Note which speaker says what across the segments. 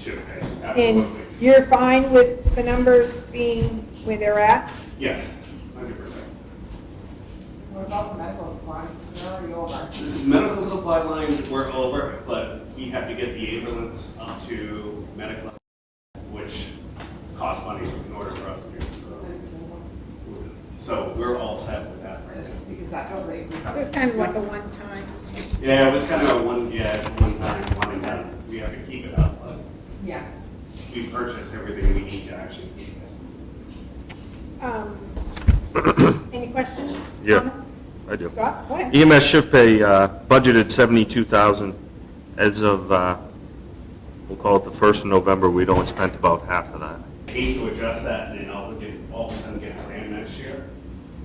Speaker 1: Should pay,
Speaker 2: And
Speaker 1: absolutely.
Speaker 2: you're fine with the numbers being where they're at?
Speaker 1: Yes, hundred percent.
Speaker 3: What about the medical supplies? Where are you over?
Speaker 1: This is medical supply line, we're over, but we have to get the ambulance up to medical, which costs money in order for us to do so. So we're all set with that right now.
Speaker 3: Just because that totally.
Speaker 2: So it's kind of like a one-time.
Speaker 1: Yeah, it was kind of a one, yeah, it's one time, one and done. We have to keep it up, but
Speaker 3: Yeah.
Speaker 1: we purchase everything we need to actually keep it.
Speaker 2: Um, Any questions?
Speaker 4: Yeah.
Speaker 2: Comments?
Speaker 4: I do.
Speaker 2: Scott, go ahead.
Speaker 4: EMS shift pay, uh, budgeted 72,000 as of, uh, we'll call it the 1st of November, we'd only spent about half of that.
Speaker 1: Hate to adjust that and then all of a- all of a sudden get slammed next year.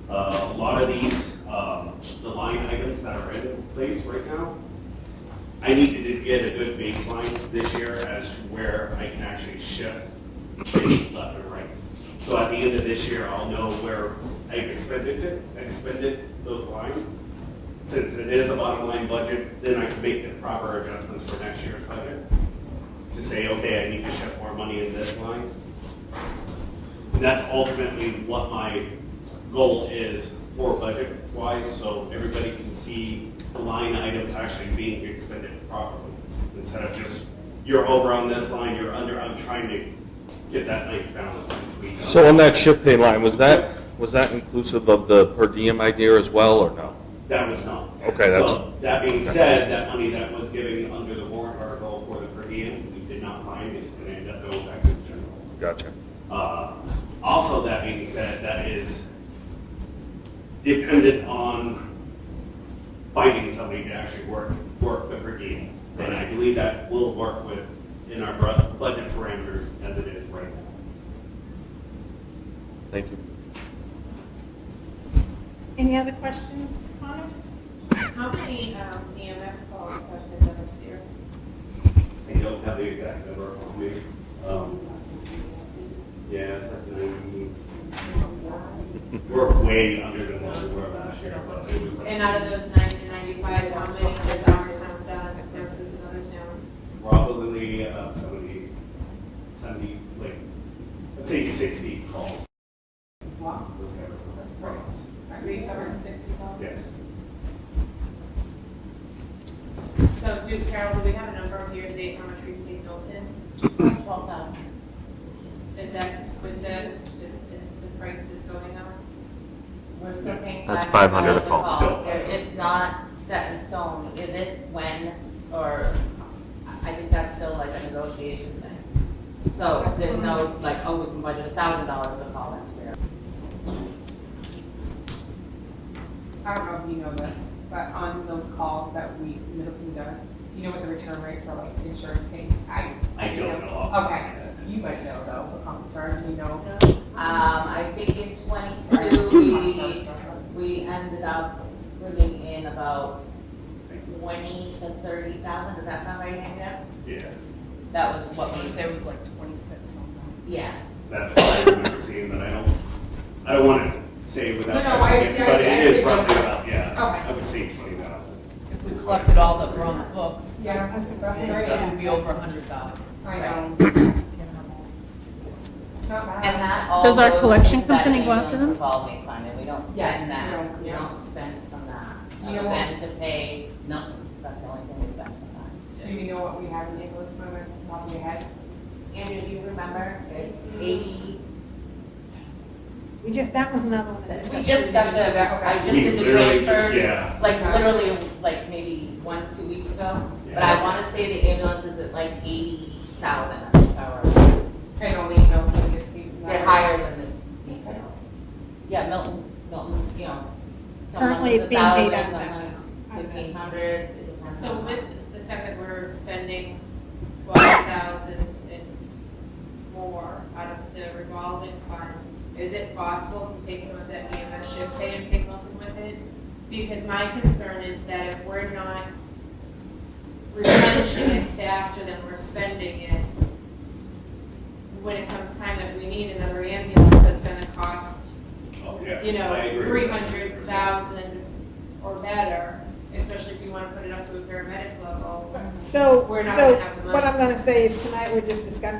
Speaker 1: Uh, A lot of these, um, the line items that are in place right now, I needed to get a good baseline this year as to where I can actually shift things left and right. So at the end of this year, I'll know where I've expended it, expended those lines. Since it is a bottom line budget, then I can make the proper adjustments for next year's budget to say, okay, I need to shift more money in this line. And that's ultimately what my goal is for budget-wise, so everybody can see the line items actually being expended properly. Instead of just, you're over on this line, you're under, I'm trying to get that nice balance between. them.
Speaker 4: So on that shift pay line, was that, was that inclusive of the per diem idea as well, or no?
Speaker 1: That was not.
Speaker 4: Okay, that's-
Speaker 1: So, that being said, that money that was given under the warrant article for the per diem, we did not find, it's gonna end up going back to the general.
Speaker 4: Gotcha.
Speaker 1: Uh, Also, that being said, that is dependent on finding somebody to actually work, work the per diem. And I believe that will work with, in our bru- budget parameters as it is right now.
Speaker 4: Thank you.
Speaker 2: Any other questions, comments?
Speaker 5: How many um, EMS calls have been done this year?
Speaker 1: I don't have the exact number on me. Um, Yeah, it's like ninety. We're way under than what we were last year, but it was.
Speaker 5: And out of those 90 to 95, how many has our town done versus another town?
Speaker 1: probably about 70, 70, like, let's say 60 calls.
Speaker 3: Wow.
Speaker 1: was ever-
Speaker 3: That's great. Are
Speaker 5: We
Speaker 3: we
Speaker 5: covered
Speaker 3: ever?
Speaker 5: 60 calls?
Speaker 1: Yes.
Speaker 5: So, do Carol, do we have a number of year-to-date how much we've paid built in?
Speaker 3: 12,000.
Speaker 5: Is that with the, is the the price is going up?
Speaker 3: We're still paying.
Speaker 4: That's
Speaker 6: $500
Speaker 4: a call.
Speaker 1: Still.
Speaker 6: There- It's not set in stone, is it, when, or, I think that's still like a negotiation thing. So there's no, like, oh, we can budget a thousand dollars a call next year.
Speaker 3: I don't know if you know this, but on those calls that we, Middleton does, you know what the return rate for like insurance pay? I.
Speaker 1: I don't know.
Speaker 3: Okay, you might know though, um, sorry, do you know?
Speaker 6: Um, I think in twenty-two, we, we ended up bringing in about twenty to thirty thousand, does that sound right, Andrea?
Speaker 1: Yeah,
Speaker 6: That was what we,
Speaker 3: There was like twenty-six something.
Speaker 6: yeah.
Speaker 1: that's what I remember seeing, but I don't, I don't want to say without.
Speaker 3: No, no, I-
Speaker 1: actually- But
Speaker 3: I- I-
Speaker 1: it is roughly about, yeah,
Speaker 3: Okay.
Speaker 1: I would say 20,000.
Speaker 7: If we collected all that were on the books,
Speaker 3: Yeah, that's very,
Speaker 7: it would be over a hundred thousand.
Speaker 3: I know. Not bad.
Speaker 6: And that all.
Speaker 8: Does our
Speaker 6: goes
Speaker 8: collection
Speaker 6: into that
Speaker 8: company go after
Speaker 6: ambulance
Speaker 8: them?
Speaker 6: Revolving fund, and we don't
Speaker 3: Yes,
Speaker 6: spend
Speaker 3: we don't,
Speaker 6: that, we
Speaker 3: yeah.
Speaker 6: don't spend from that.
Speaker 3: You know
Speaker 6: Other
Speaker 3: what?
Speaker 6: than to pay, nothing, that's the only thing we spend from that.
Speaker 3: Do you know what we have in the ambulance fund off the top of your head?
Speaker 6: Andrew, do you remember, it's
Speaker 3: Mm-hmm.
Speaker 6: eighty,
Speaker 2: We just, that was another one.
Speaker 6: we
Speaker 2: of
Speaker 6: just
Speaker 2: the-
Speaker 6: got the, I just
Speaker 1: We
Speaker 6: did the
Speaker 1: literally just- yeah.
Speaker 6: transfers, like literally, like maybe one, two weeks ago. But
Speaker 1: Yeah.
Speaker 6: I wanna say the ambulance is at like eighty thousand, or,
Speaker 3: I don't even know if it gets paid. for that.
Speaker 6: they're higher than the detail. Yeah, Milton, Milton's, you know, some
Speaker 2: Currently, it's
Speaker 6: months it's a
Speaker 2: being paid
Speaker 6: thousand,
Speaker 2: out of
Speaker 6: some
Speaker 2: that.
Speaker 6: months fifteen hundred, it depends
Speaker 5: So
Speaker 6: on-
Speaker 5: with the fact that we're spending twelve thousand and more out of the revolving fund, is it possible to take some of that EMS shift pay and pick up with it? Because my concern is that if we're not replenishing it faster than we're spending it, when it comes time that we need another ambulance, that's gonna cost
Speaker 1: Oh, yeah.
Speaker 5: you
Speaker 1: I
Speaker 5: know,
Speaker 1: agree.
Speaker 5: three hundred thousand or better, especially if you wanna put it up to a paramedic level,
Speaker 2: So,
Speaker 5: we're not gonna
Speaker 2: so
Speaker 5: have the month.
Speaker 2: what I'm gonna say is tonight we're just discussing